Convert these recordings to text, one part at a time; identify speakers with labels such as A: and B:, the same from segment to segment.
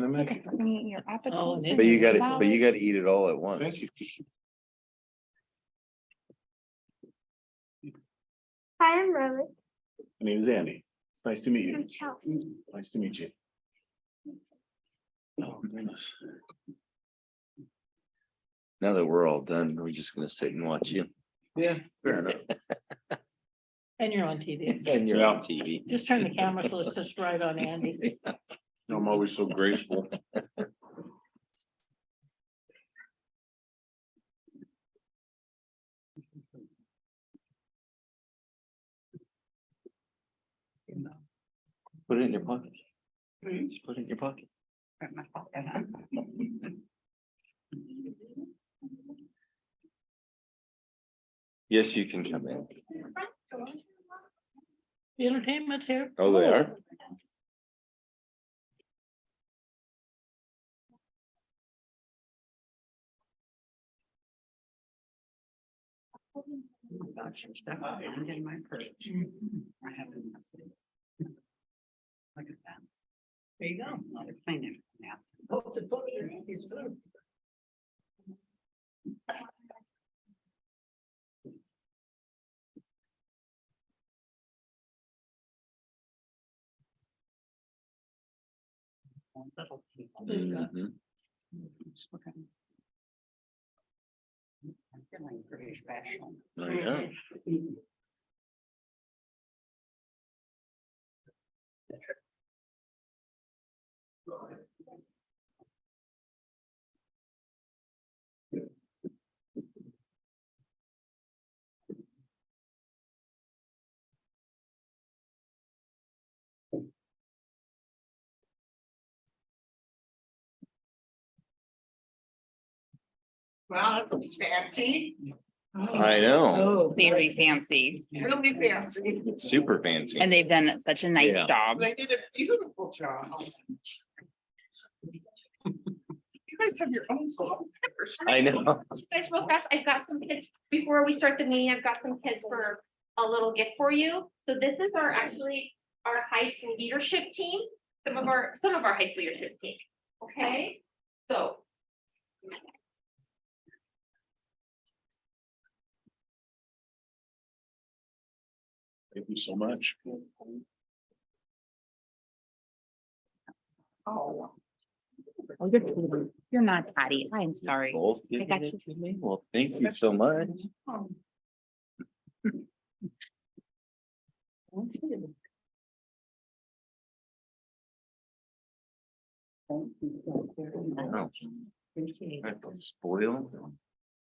A: Look
B: make
A: at
B: it.
A: me, your appetite.
C: it
A: is
C: But
D: But you gotta,
A: devouring.
D: but you gotta eat it all at once.
B: Thank you.
E: Hi, I'm Robert.
B: My name is Andy. It's nice to meet
E: I'm Chelsea.
B: you. Nice to meet you. Oh, goodness.
D: Now that we're all done, we're just gonna sit and watch you.
B: Yeah, fair enough.
C: And you're on TV.
D: And you're
B: Yeah.
D: on TV.
C: Just turn the camera so it's just right on Andy.
B: I'm always so graceful.
D: Put it in your pocket. Just Put it in your pocket. Yes, you can come in.
C: The entertainment's here.
D: Oh, they are?
C: There you go.
D: Mhm. Mm, I know.
F: Wow, that looks fancy,
D: I know.
C: Oh,
A: Very fancy,
F: really fancy.
D: Super fancy.
A: and they've done such a nice
D: Yeah.
A: job.
F: They did a beautiful job. You guys have your own salt and pepper.
D: I know.
E: You guys, real fast, I've got some kids, before we start the meeting, I've got some kids for a little gift for you. So this is our, actually, our Heights leadership team, some of our, some of our Heights leadership team, okay? So.
B: Thank you so much.
F: Oh,
A: Oh, You're kidding. You're not Patty, I'm sorry.
D: Both
A: I
D: giving
A: got
D: it
A: you.
D: to me. Well, thank you so much. Oh, I feel Spoiled.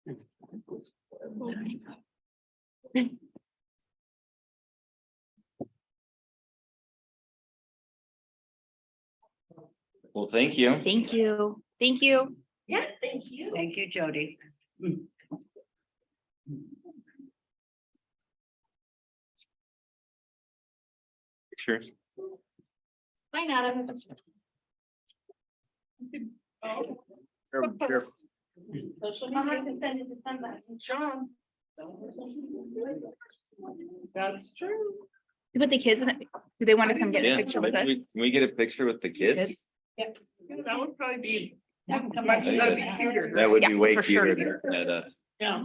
D: Well, thank you.
A: Thank you, thank you.
E: Yes, thank you.
G: Thank you, Jody.
D: Sure.
E: Hi, Adam. I'll have to send it to somebody. John.
F: that's true.
A: Put the kids, in it. do they want to come get
D: Yeah,
A: a picture with us?
D: we, can we get a picture with the kids?
A: Kids?
F: That would probably be
C: Come on.
F: much, that'd be cuter.
D: That would
A: Yeah,
D: be way
A: for sure.
D: cuter than uh, at us.
C: Yeah.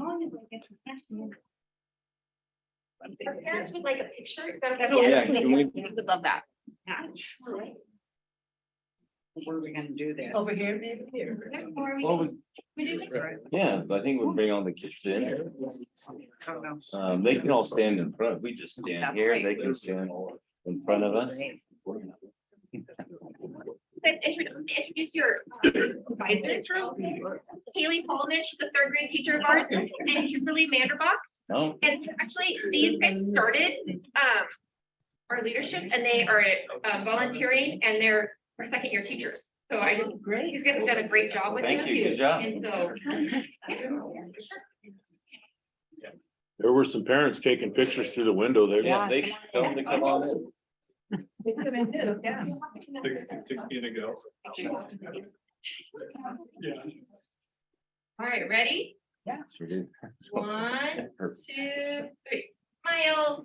E: Our parents would like a picture. is that okay?
C: That'll-
D: Oh, Yeah, can we-
A: We would love that.
G: Where are we gonna do that?
F: Oh,
C: Over here, maybe here.
E: Or we-
D: Well, we-
E: we do it.
D: yeah, I think we'll bring all the kids in.
F: I don't know.
D: Um, they can all stand in front. We just
G: That's
D: stand here.
G: right.
D: They can stand in front of us.
E: Guys, intro- introduce your advisor. Haley Pullman, she's a third grade teacher of ours, and Kimberly Manderbach.
D: Oh,
E: And actually, these guys started um our leadership and they are uh, volunteering and they're our second year teachers. So I just,
C: Great.
E: these guys have done a great job with
D: thank you.
E: them.
D: Good job.
E: And so. yeah, sure.
B: There were some parents taking pictures through the window there.
D: Yeah, they should tell them to come on in.
B: Sixteen ago. Yeah.
E: All right, ready?
D: Sure did.
E: One, two, three. Smile.